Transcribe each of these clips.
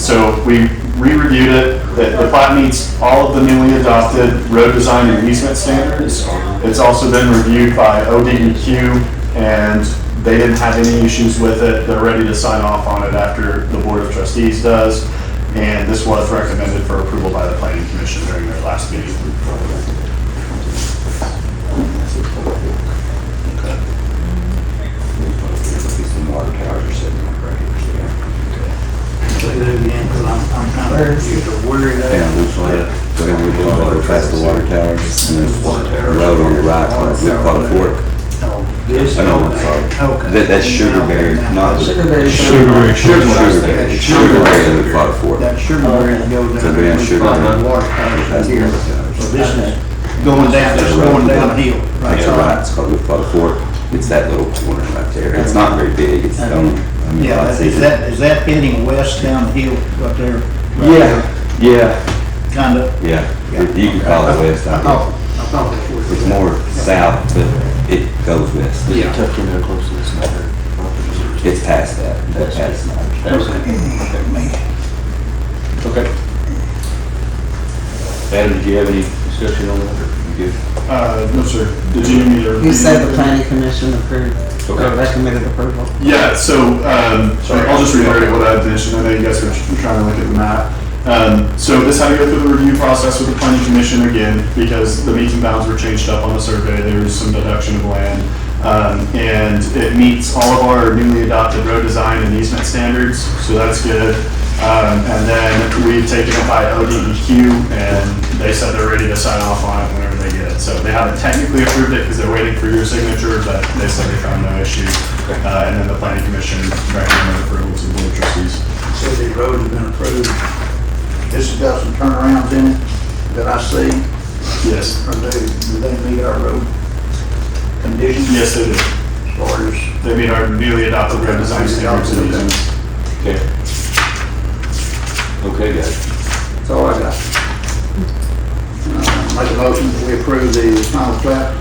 So we re-reviewed it, that the plat meets all of the newly adopted road design and easement standards. It's also been reviewed by ODEQ, and they didn't have any issues with it. They're ready to sign off on it after the Board of Trustees does, and this was recommended for approval by the Planning Commission during their last meeting. It's the water towers are sitting right here, so. Say that again, because I'm, I'm kind of confused of where it Yeah, is. looks like, we're gonna be going over past the water tower, and there's a road on the right, called, we call it Fork. Oh, This. I know, I'm sorry. Okay. That, that's Sugarberry, not the. Sugarberry. Sugarberry. Sugarberry, Sugarberry, and we call it Fork. That Sugarberry goes down. So we have Sugar Right, Hill. the Water tower is That's the here. water tower. So this is going down, just going downhill. That's right, it's called, we call it Fork, it's that little corner right there, it's not very big, it's, um, I mean, Yeah, I'd is say. is that, is that heading west downhill up there? Yeah, yeah, Kind of. yeah, If you can call it west, I thought- guess. I thought it was. It's more south, but it goes west. Yeah. Tucked in there close to this matter. It's past that, that's past that. Okay. Adam, did you have any discussion on that? or You good? Uh, no, sir. Did you need me to? You said the planning commission approved, or Okay. recommended approval. Yeah, so, um, Sorry. I'll just reiterate what I mentioned, I know you guys are tr- trying to look at the map. Um, so this had to go through the review process with the planning commission again, because the meets and bounds were changed up on the survey, there was some deduction of land. Um, and it meets all of our newly adopted road design and easement standards, so that's good. Um, and then we've taken it by ODEQ, E and they said they're ready to sign off on it whenever they get it. So they haven't technically approved it, because they're waiting for your signature, but they said they found no issue. Uh, And then the planning commission recommended approval to the board of trustees. Said the road has been approved. This has got some turnarounds in it that I see, Yes. or do, do they meet our road conditions? Yes, they did. As far as They meet our newly adopted road design standards. and easements. Okay. Okay, guys. That's all I got. Uh, Make a motion that we approve the final plat,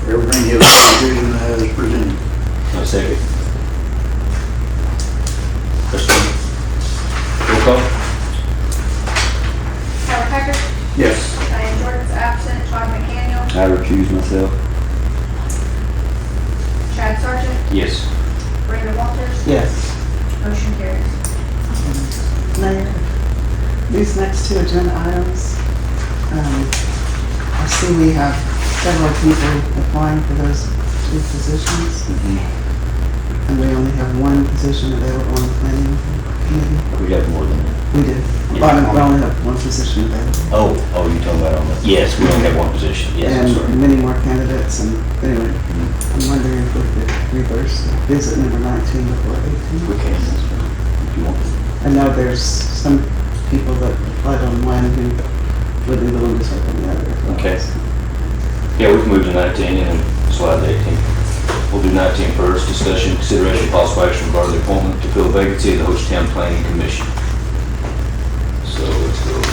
for everything is revision as presented. I second. Question? Roll call? Howard Hager, Yes. Diane Jordan's absent, Todd McDaniel, I recuse myself. Chad Sargent, Yes. Brandon Walters, Yes. motion carries. Mayor, these next two agenda items, um, I see we have several people applying for those two positions. And we only have one position available on the planning committee. We got more than that. We do. Well, we only have one position available. Oh, oh, you talking about on the, yes, we only have one position. Yes, I'm And sorry. many more candidates, and anyway, I'm wondering if we could reverse visit number 19 before 18. We can. If you want. I know there's some people that applied on one who would be willing to take on the other. as well. Okay. Yeah, we can move to 19 and slide to 18. We'll do 19 first, discussion, consideration, possible action regarding the appointment to fill vacancy of the Hochtown Planning Commission. So let's go to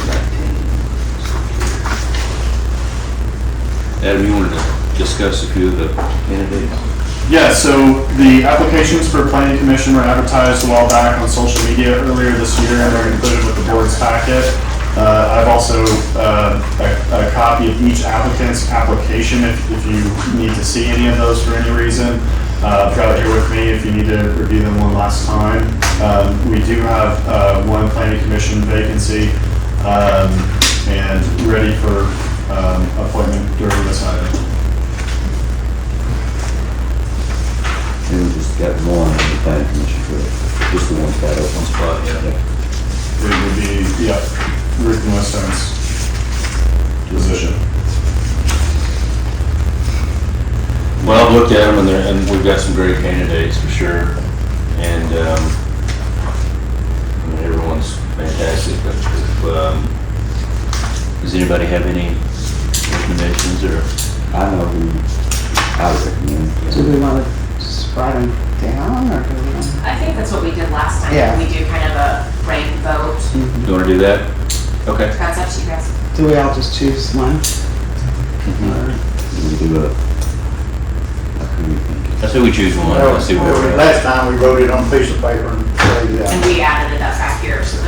19. Adam, you wanted to discuss a few of the candidates? Yeah, so the applications for planning commission were advertised a while back on social media earlier this year, and they're included with the board's packet. Uh, I've also, uh, a a copy of each applicant's application if if you need to see any of those for any reason. Uh, I've got it here with me if you need to review them one last time. Um, We do have uh, one planning commission vacancy um, and ready for um, appointment during this item. And we just got one on the planning commission for it. Just the one that One open. spot, yeah. It would be, yeah, Ruth Weston's position. Well, I've looked at them and they're, and we've got some great candidates for sure. And, um, I mean, everyone's fantastic, but, um, does anybody have any recommendations or? I know who I would Do recommend. we want to just write them down or do we want? I think that's what we did last time. Yeah. We do kind of a rank vote. You wanna do that? Okay. That's up to you guys. Do we all just choose one? We do a, I couldn't think. I say we choose one, let's see where we're at. Last time we wrote it on a piece of paper and, And uh, we added it up back here, so